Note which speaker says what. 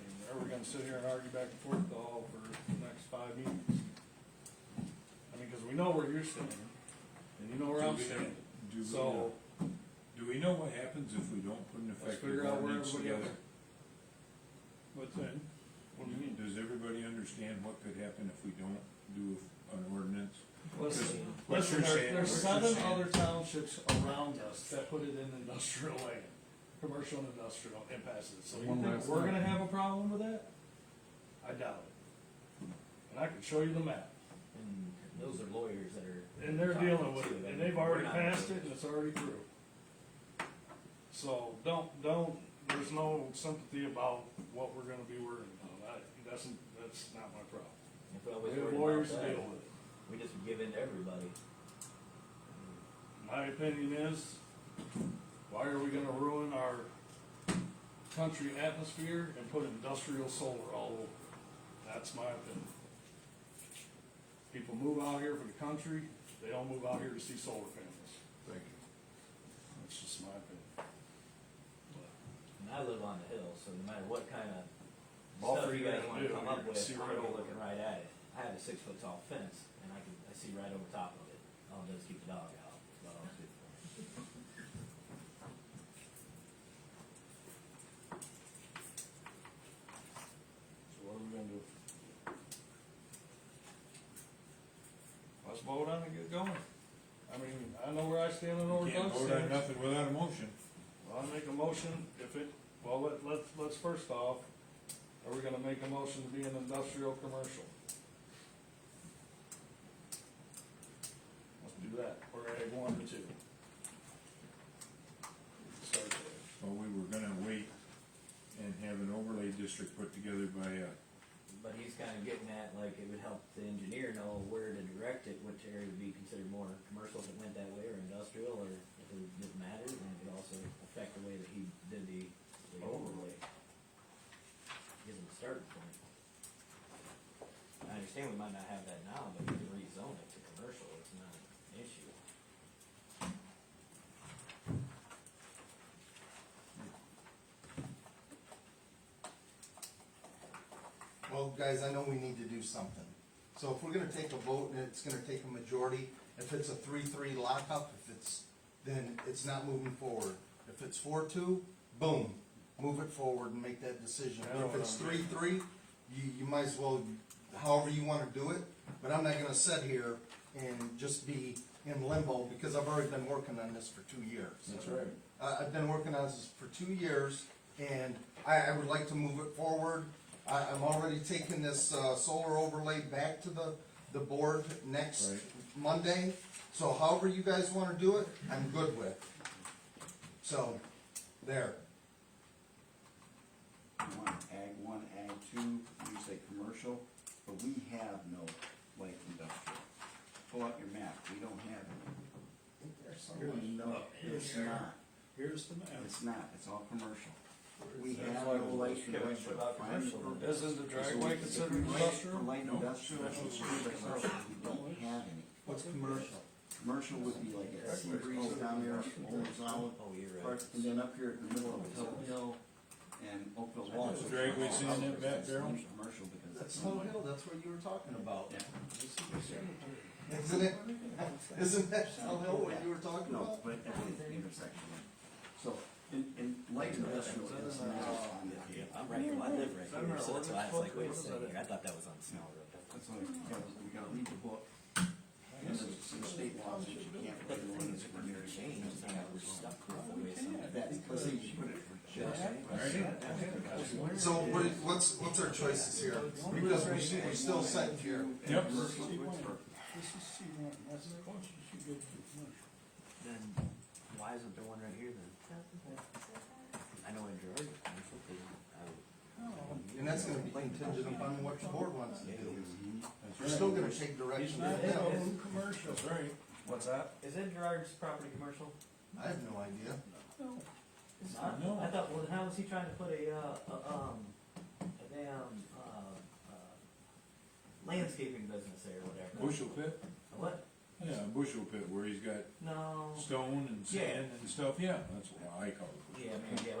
Speaker 1: uh, sit here and argue back and forth all for the next five meetings. I mean, cause we know where you're standing, and you know where
Speaker 2: Do
Speaker 1: I'm
Speaker 2: we know-
Speaker 1: standing,
Speaker 2: Do we
Speaker 1: so
Speaker 2: know, do we know what happens if we don't put an
Speaker 1: let's figure
Speaker 2: effective
Speaker 1: out where
Speaker 2: ordinance
Speaker 1: everybody else.
Speaker 2: together?
Speaker 1: What's that? What do you mean?
Speaker 2: Does everybody understand what could happen if we don't do an ordinance?
Speaker 1: Listen,
Speaker 2: What
Speaker 1: listen,
Speaker 2: you're
Speaker 1: there,
Speaker 2: saying-
Speaker 1: there's
Speaker 2: what
Speaker 1: seven
Speaker 2: you're saying-
Speaker 1: other townships around us that put it in industrial land, commercial and industrial, and passes it, so you
Speaker 3: One
Speaker 1: think
Speaker 3: last
Speaker 1: we're
Speaker 3: thing.
Speaker 1: gonna have a problem with that? I doubt it. And I can show you the map,
Speaker 4: And those are lawyers that are.
Speaker 1: and they're
Speaker 4: talking
Speaker 1: dealing with
Speaker 4: to
Speaker 1: it,
Speaker 4: them.
Speaker 1: and they've
Speaker 4: We're
Speaker 1: already
Speaker 4: not
Speaker 1: passed it,
Speaker 4: lawyers.
Speaker 1: and it's already through. So, don't, don't, there's no sympathy about what we're gonna be worrying about, I, that's, that's not my problem.
Speaker 4: If I
Speaker 1: We
Speaker 4: was
Speaker 1: have
Speaker 4: worried about
Speaker 1: lawyers to
Speaker 4: that,
Speaker 1: deal with it.
Speaker 4: We just give in to everybody.
Speaker 1: My opinion is, why are we gonna ruin our country atmosphere and put industrial solar all over? it? That's my opinion. People move out here for the country, they don't move out here to see solar panels.
Speaker 2: Thank you.
Speaker 1: That's just my opinion.
Speaker 4: And I live on the hill, so no matter what kind of
Speaker 1: Ball
Speaker 4: stuff
Speaker 1: for
Speaker 4: you
Speaker 1: you
Speaker 4: guys
Speaker 1: to
Speaker 4: wanna
Speaker 1: do, you're
Speaker 4: come up
Speaker 1: gonna
Speaker 4: with,
Speaker 1: see
Speaker 4: I'm
Speaker 1: right
Speaker 4: gonna be
Speaker 1: over
Speaker 4: looking
Speaker 1: it.
Speaker 4: right at it. I have a six foot tall fence and I can, I see right over top of it. All it does is keep the dog out. so.
Speaker 1: So what are we gonna do? Let's vote on it, and get going. I mean, I know where I stand on
Speaker 2: You
Speaker 1: Oregon.
Speaker 2: Can't vote on nothing without a motion.
Speaker 1: Well, I make a motion, if it, well, let, let's, let's first off, are we gonna make a motion to be an industrial commercial? Let's do that, or ag one or two. Start there.
Speaker 2: Well, we were gonna wait and have an overlay district put together by, uh,
Speaker 4: But he's kinda getting at, like, it would help the engineer know where to direct it, which area would be considered more commercial if it went that way, or industrial, or if it didn't matter, and it would also affect the way that he did the, the overlay. Gives him a starting point. I understand we might not have that now, but you can rezone it to commercial, it's not an issue.
Speaker 5: Well, guys, I know we need to do something. So if we're gonna take a vote and it's gonna take a majority, if it's a three-three lockup, if it's, then it's not moving forward. If it's four-two, boom, move it forward and make that decision.
Speaker 1: I don't
Speaker 5: If it's
Speaker 1: wanna-
Speaker 5: three-three, you, you might as well, however you wanna do it, but I'm not gonna sit here and just be in limbo, because I've already been working on this for two years.
Speaker 2: That's right.
Speaker 5: Uh, I've been working on this for two years, and I, I would like to move it forward. I, I'm already taking this, uh, solar overlay back to the, the board next
Speaker 2: Right.
Speaker 5: Monday. So however you guys wanna do it, I'm good with. So, there.
Speaker 6: one, ag one, ag two, you say commercial, but we have no light industrial. Pull out your map, we don't have it. No, it's not,
Speaker 2: Here's the map.
Speaker 6: it's not, it's all commercial. We
Speaker 4: That's
Speaker 6: have
Speaker 4: why
Speaker 6: no
Speaker 4: we
Speaker 6: light
Speaker 4: just can't
Speaker 6: industrial.
Speaker 4: without commercial.
Speaker 6: Find-
Speaker 1: Isn't the
Speaker 6: So we-
Speaker 1: dragway
Speaker 6: if
Speaker 1: considered
Speaker 6: we like
Speaker 1: industrial?
Speaker 6: Light industrial,
Speaker 2: No.
Speaker 6: it's considered commercial, we don't have any.
Speaker 5: What's commercial?
Speaker 6: Commercial would be like at Sea Breeze down there, Old Solid,
Speaker 4: Oh, you're right.
Speaker 6: parts, and then up here in the middle of Hill Hill and Oakville Wall.
Speaker 2: The dragway's in that back barrel?
Speaker 6: Commercial because.
Speaker 5: That's
Speaker 6: it's
Speaker 5: Snow Hill, that's what you were talking about.
Speaker 6: Yeah.
Speaker 5: Isn't it, isn't that Snow Hill what you were talking
Speaker 6: No,
Speaker 5: about?
Speaker 6: but at the intersection. So, in, in light industrial is not on the table.
Speaker 4: I'm right, well, I live right here, so that's why I was like, wait a second, here, I thought that was on
Speaker 6: No,
Speaker 4: Snow Road.
Speaker 6: that's why we gotta, we gotta read the book. And there's some state laws that you can't
Speaker 4: But the
Speaker 6: write
Speaker 4: thing is,
Speaker 6: ordinance
Speaker 4: when you're changed, it's not like we're stuck with the way some.
Speaker 6: That's because they put it for just.
Speaker 5: So what, what's, what's our choices here? Because we, we're still sitting here.
Speaker 2: Yep.
Speaker 6: Commercial, Whitford.
Speaker 1: This is C one, that's the question you should go to.
Speaker 4: Then why isn't there one right here then? I know in Gerard, I'm hoping, I
Speaker 5: And that's gonna be contingent upon what the board wants to do. We're
Speaker 2: That's
Speaker 5: still
Speaker 2: right.
Speaker 5: gonna take direction from them.
Speaker 1: commercial.
Speaker 2: That's right.
Speaker 1: What's that?
Speaker 4: would. Is that Gerard's property commercial?
Speaker 5: I have no idea.
Speaker 4: It's not.
Speaker 2: No.
Speaker 4: I thought, well, how was he trying to put a, uh, a, um, a damn, uh, uh, landscaping business there or whatever?
Speaker 2: Bushel pit?
Speaker 4: A What?
Speaker 2: Yeah, a bushel pit where he's got
Speaker 4: No.
Speaker 2: stone and sand and stuff, yeah, that's what I call it.
Speaker 4: Yeah, maybe, yeah,